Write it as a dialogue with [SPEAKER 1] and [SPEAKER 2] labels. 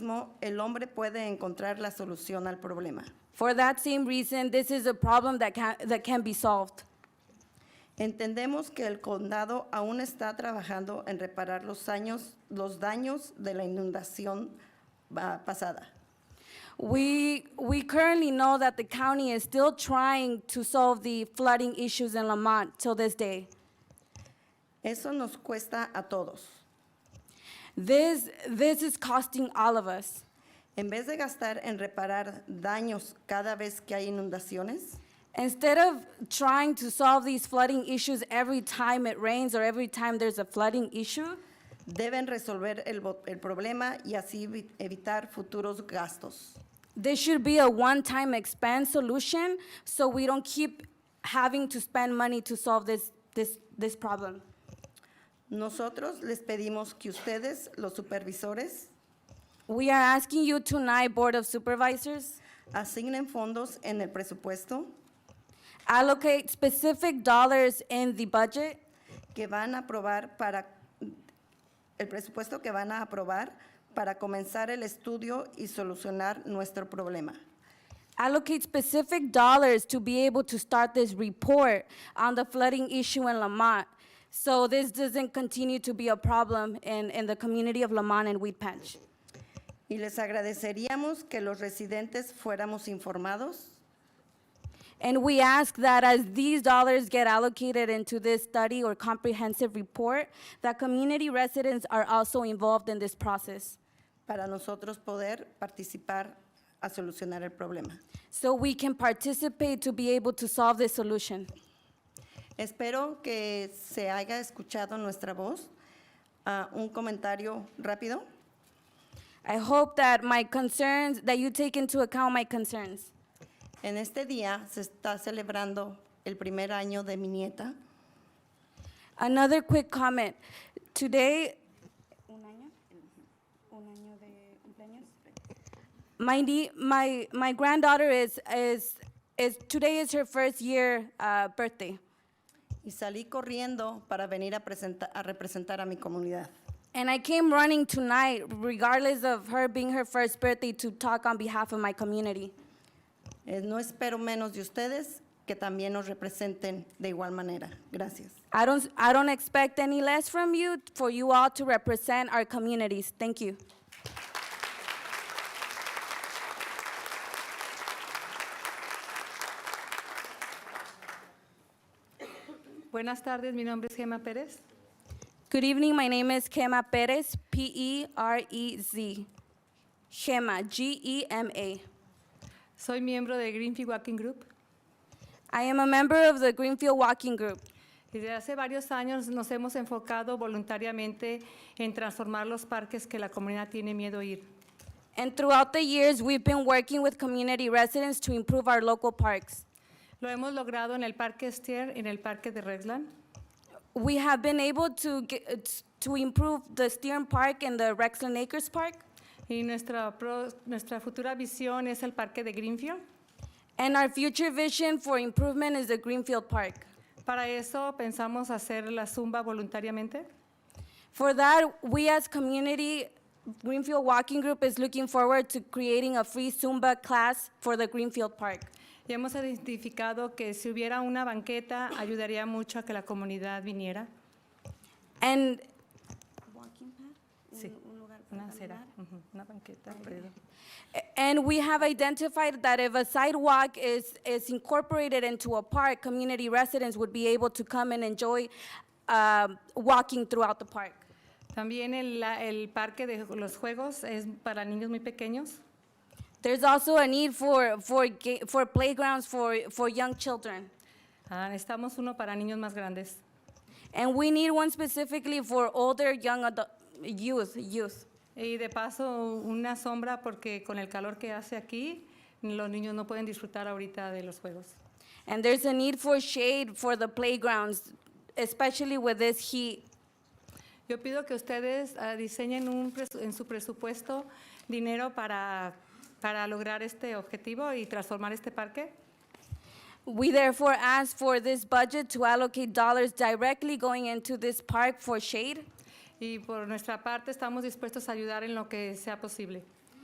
[SPEAKER 1] mismo, el hombre puede encontrar la solución al problema.
[SPEAKER 2] For that same reason, this is a problem that can, that can be solved.
[SPEAKER 1] Entendemos que el condado aún está trabajando en reparar los, años, los daños de la inundación ah, pasada.
[SPEAKER 2] We, we currently know that the county is still trying to solve the flooding issues in Lamont till this day.
[SPEAKER 1] Eso nos cuesta a todos.
[SPEAKER 2] This, this is costing all of us.
[SPEAKER 1] En vez de gastar en reparar daños cada vez que hay inundaciones,
[SPEAKER 2] Instead of trying to solve these flooding issues every time it rains or every time there's a flooding issue,
[SPEAKER 1] deben resolver el, bo- el problema y así evi- evitar futuros gastos.
[SPEAKER 2] this should be a one-time expense solution so we don't keep having to spend money to solve this, this, this problem.
[SPEAKER 1] Nosotros les pedimos que ustedes, los supervisores,
[SPEAKER 2] We are asking you tonight, Board of Supervisors,
[SPEAKER 1] asignen fondos en el presupuesto
[SPEAKER 2] allocate specific dollars in the budget
[SPEAKER 1] que van a aprobar para, el presupuesto que van a aprobar para comenzar el estudio y solucionar nuestro problema.
[SPEAKER 2] allocate specific dollars to be able to start this report on the flooding issue in Lamont. So this doesn't continue to be a problem in, in the community of Lamont and Wheat Patch.
[SPEAKER 1] Y les agradeceríamos que los residentes fuéramos informados
[SPEAKER 2] And we ask that as these dollars get allocated into this study or comprehensive report, that community residents are also involved in this process.
[SPEAKER 1] para nosotros poder participar a solucionar el problema.
[SPEAKER 2] So we can participate to be able to solve this solution.
[SPEAKER 1] Espero que se haya escuchado nuestra voz. Ah, un comentario rápido.
[SPEAKER 2] I hope that my concerns, that you take into account my concerns.
[SPEAKER 1] En este día se está celebrando el primer año de mi nieta.
[SPEAKER 2] Another quick comment. Today, my, nie- my, my granddaughter is, is, is, today is her first year uh, birthday.
[SPEAKER 1] y salí corriendo para venir a, presenta- a representar a mi comunidad.
[SPEAKER 2] And I came running tonight, regardless of her being her first birthday, to talk on behalf of my community.
[SPEAKER 1] Eh, no espero menos de ustedes que también nos representen de igual manera. Gracias.
[SPEAKER 2] I don't, I don't expect any less from you, for you all to represent our communities. Thank you.
[SPEAKER 3] Buenas tardes, mi nombre es Gema Pérez.
[SPEAKER 2] Good evening. My name is Gema Perez, P E R E Z. Gema, G E M A.
[SPEAKER 3] Soy miembro de Greenfield Walking Group.
[SPEAKER 2] I am a member of the Greenfield Walking Group.
[SPEAKER 3] Y Desde hace varios años nos hemos enfocado voluntariamente en transformar los parques que la comunidad tiene miedo a ir.
[SPEAKER 2] And throughout the years, we've been working with community residents to improve our local parks.
[SPEAKER 3] Lo hemos logrado en el Parque Estier, en el Parque de Redland,
[SPEAKER 2] We have been able to, get, to improve the Stearn Park and the Rexland Acres Park.
[SPEAKER 3] y nuestra, pro- nuestra futura visión es el Parque de Greenfield.
[SPEAKER 2] And our future vision for improvement is the Greenfield Park.
[SPEAKER 3] Para eso pensamos hacer la zumba voluntariamente.
[SPEAKER 2] For that, we as community, Greenfield Walking Group is looking forward to creating a free Zumba class for the Greenfield Park.
[SPEAKER 3] Y hemos identificado que si hubiera una banqueta ayudaría mucho a que la comunidad viniera.
[SPEAKER 2] And,
[SPEAKER 3] Sí, una acera, ujú, una banqueta. perdón.
[SPEAKER 2] and we have identified that if a sidewalk is, is incorporated into a park, community residents would be able to come and enjoy um, walking throughout the park.
[SPEAKER 3] También el, la- el parque de los juegos es para niños muy pequeños.
[SPEAKER 2] There's also a need for, for, ga- for playgrounds for, for young children.
[SPEAKER 3] Ah, necesitamos uno para niños más grandes.
[SPEAKER 2] And we need one specifically for older, young adult, youth, youth.
[SPEAKER 3] Y de paso, una sombra porque con el calor que hace aquí, los niños no pueden disfrutar ahorita de los juegos.
[SPEAKER 2] And there's a need for shade for the playgrounds, especially with this heat.
[SPEAKER 3] Yo pido que ustedes ah, diseñen un presu- en su presupuesto dinero para, para lograr este objetivo y transformar este parque.
[SPEAKER 2] We therefore ask for this budget to allocate dollars directly going into this park for shade.
[SPEAKER 3] Y por nuestra parte, estamos dispuestos a ayudar en lo que sea posible.